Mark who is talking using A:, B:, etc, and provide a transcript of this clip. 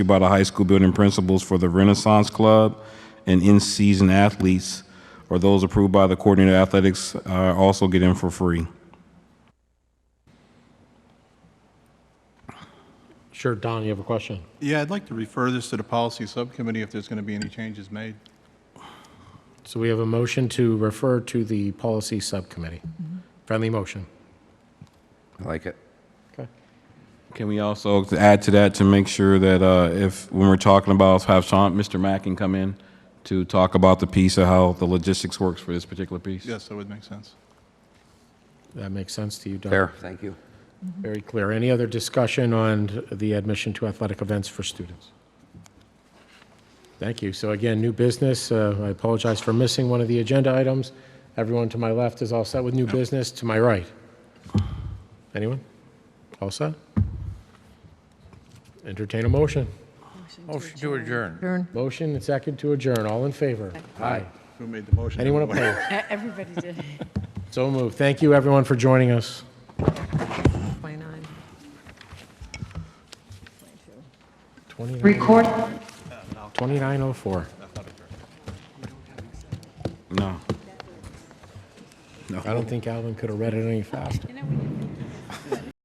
A: by the high school building principals for the Renaissance Club and in-season athletes, or those approved by the coordinator of athletics, uh, also get in for free.
B: Sure, Don, you have a question?
C: Yeah, I'd like to refer this to the policy subcommittee if there's going to be any changes made.
B: So we have a motion to refer to the policy subcommittee. Friendly motion.
D: I like it.
B: Okay.
A: Can we also add to that to make sure that uh, if, when we're talking about, have Sean, Mr. Mackin come in to talk about the piece of how the logistics works for this particular piece?
C: Yes, that would make sense.
B: That makes sense to you, Don?
D: Fair, thank you.
B: Very clear. Any other discussion on the admission to athletic events for students? Thank you. So again, new business. Uh, I apologize for missing one of the agenda items. Everyone to my left is all set with new business. To my right? Anyone? All set? Entertain a motion.
D: Motion to adjourn.
B: Motion and second to adjourn. All in favor? Aye.
C: Who made the motion?
B: Anyone opposed?
E: E-, Everybody did.
B: So moved. Thank you, everyone, for joining us.
E: Why not?
B: 29 2904.
A: No.
B: I don't think Alvin could have read it any faster.